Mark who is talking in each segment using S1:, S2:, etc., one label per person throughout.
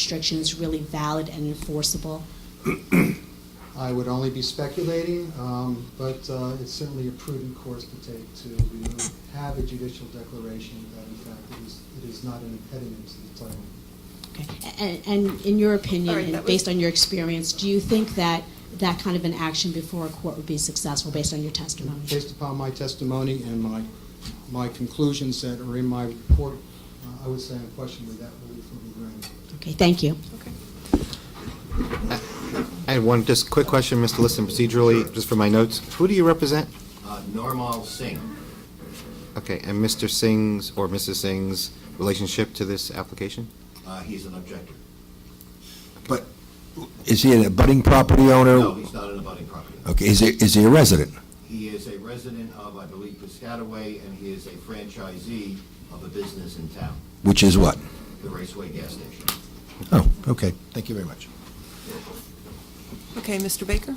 S1: restrictions really valid and enforceable?
S2: I would only be speculating, um, but uh, it's certainly a prudent course to take to remove, have a judicial declaration that in fact it is, it is not an impediment to the title.
S1: Okay. And, and in your opinion,
S3: All right,
S1: and
S3: that was-
S1: based on your experience, do you think that that kind of an action before a court would be successful based on your testimony?
S2: Based upon my testimony and my, my conclusions that are in my report, uh, I would say unquestionably that relief will be granted.
S1: Okay, thank you.
S3: Okay.
S4: I had one, just quick question, Mr. Liston, procedurally, just for my notes. Who do you represent?
S5: Uh, Normal Singh.
S4: Okay, and Mr. Singh's or Mrs. Singh's relationship to this application?
S5: Uh, He's an objector.
S6: But is he a budding property owner?
S5: No, he's not an abutting property.
S6: Okay, is he, is he a resident?
S5: He is a resident of, I believe, Piscataway, and he is a franchisee of a business in town,
S6: Which is what?
S5: the Raceway Gas Station.
S6: Oh, okay, thank you very much.
S3: Okay, Mr. Baker?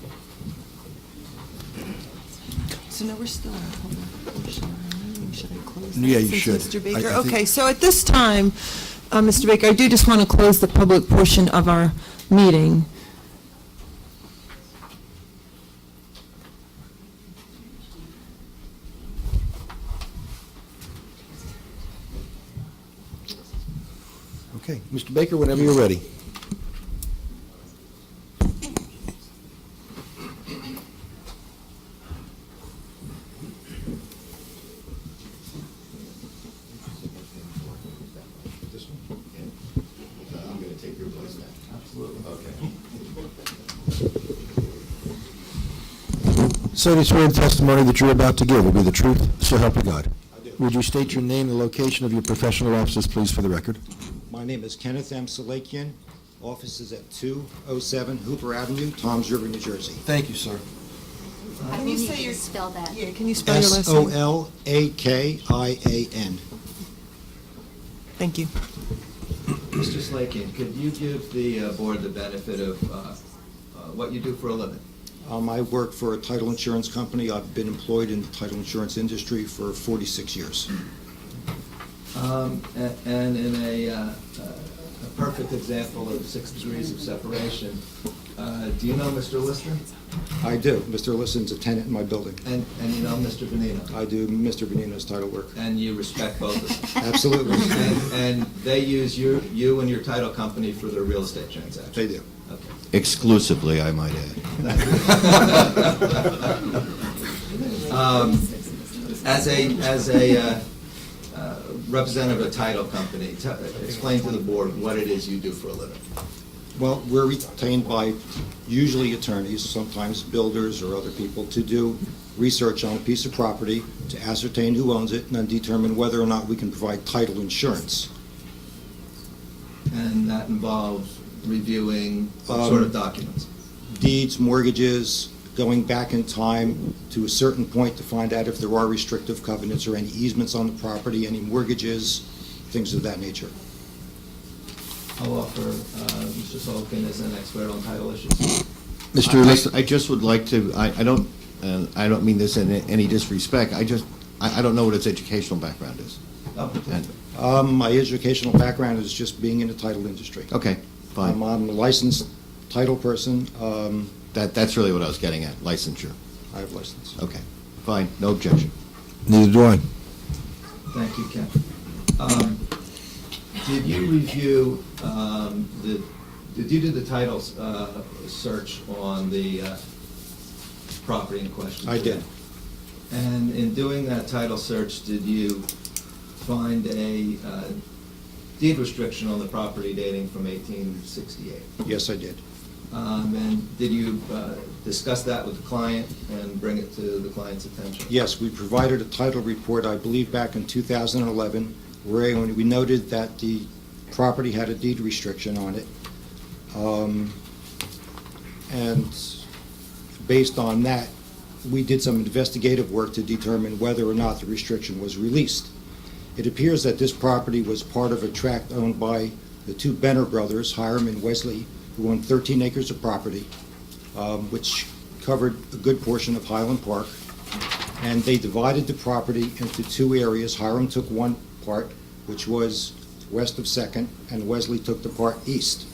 S3: So now we're still on, hold on. Should I- Should I close?
S6: Yeah,
S3: that
S6: you
S3: since Mr.
S6: should. I-
S3: Baker,
S6: I think-
S3: okay, so at this time, uh, Mr. Baker, I do just want to close the public portion of our meeting.
S6: Okay, Mr. Baker, whenever you're ready.
S5: This one? Yeah. Uh, I'm going to take your place now. Absolutely. Okay.
S6: So do you swear the testimony that you're about to give will be the truth, so help you God? I do. Would you state your name and location of your professional offices, please, for the record?
S5: My name is Kenneth M. Salakian. Office is at 207 Hooper Avenue, Toms River, New Jersey.
S6: Thank you, sir.
S3: Can you say your,
S1: Spell that.
S3: yeah, can you spell your last name?
S5: S-O-L-A-K-I-A-N.
S3: Thank you.
S7: Mr. Slakin, could you give the uh, board the benefit of uh, uh, what you do for a living?
S5: Um, I work for a title insurance company. I've been employed in the title insurance industry for 46 years.
S7: Um, a- And in a uh, uh, a perfect example of six degrees of separation, uh, do you know Mr. Lister?
S5: I do. Mr. Liston's a tenant in my building.
S7: And and you know Mr. Venino?
S5: I do Mr. Benino's title work.
S7: And you respect both of them?
S5: Absolutely.
S7: And- And they use your- you and your title company for their real estate transactions?
S5: They do.
S7: Okay.
S5: Exclusively, I might add.
S7: Um, As a, as a uh, uh, representative of a title company, t- explain to the board what it is you do for a living.
S5: Well, we're retained by usually attorneys, sometimes builders or other people, to do research on a piece of property, to ascertain who owns it, and then determine whether or not we can provide title insurance.
S7: And that involves reviewing what sort of documents?
S5: Um, Deeds, mortgages, going back in time to a certain point to find out if there are restrictive covenants or any easements on the property, any mortgages, things of that nature.
S7: I'll offer uh, Mr. Solkin as an expert on title issues.
S6: Mr. Liston,
S8: I- I just would like to, I, I don't, uh, I don't mean this in any disrespect, I just, I, I don't know what his educational background is.
S7: Oh,
S8: And-
S5: Um, My educational background is just being in the title industry.
S8: Okay,
S5: I'm
S8: fine,
S5: I'm a licensed title person. Um,
S8: that, that's really what I was getting at, licensure,
S5: I have license.
S8: okay, fine, no objection.
S6: Neither do I.
S7: Thank you, Ken. Um, Did you review um, the, did you do the title uh, search on the uh, property in question?
S5: I did.
S7: And in doing that title search, did you find a uh, deed restriction on the property dating from 1868?
S5: Yes, I did.
S7: Um, And did you uh, discuss that with the client and bring it to the client's attention?
S5: Yes, we provided a title report, I believe, back in 2011, where we noted that the property had a deed restriction on it. Um, And based on that, we did some investigative work to determine whether or not the restriction was released. It appears that this property was part of a tract owned by the two Benner brothers, Hiram and Wesley, who owned 13 acres of property, um, which covered a good portion of Highland Park and they divided the property into two areas. Hiram took one part, which was west of Second, and Wesley took the part east.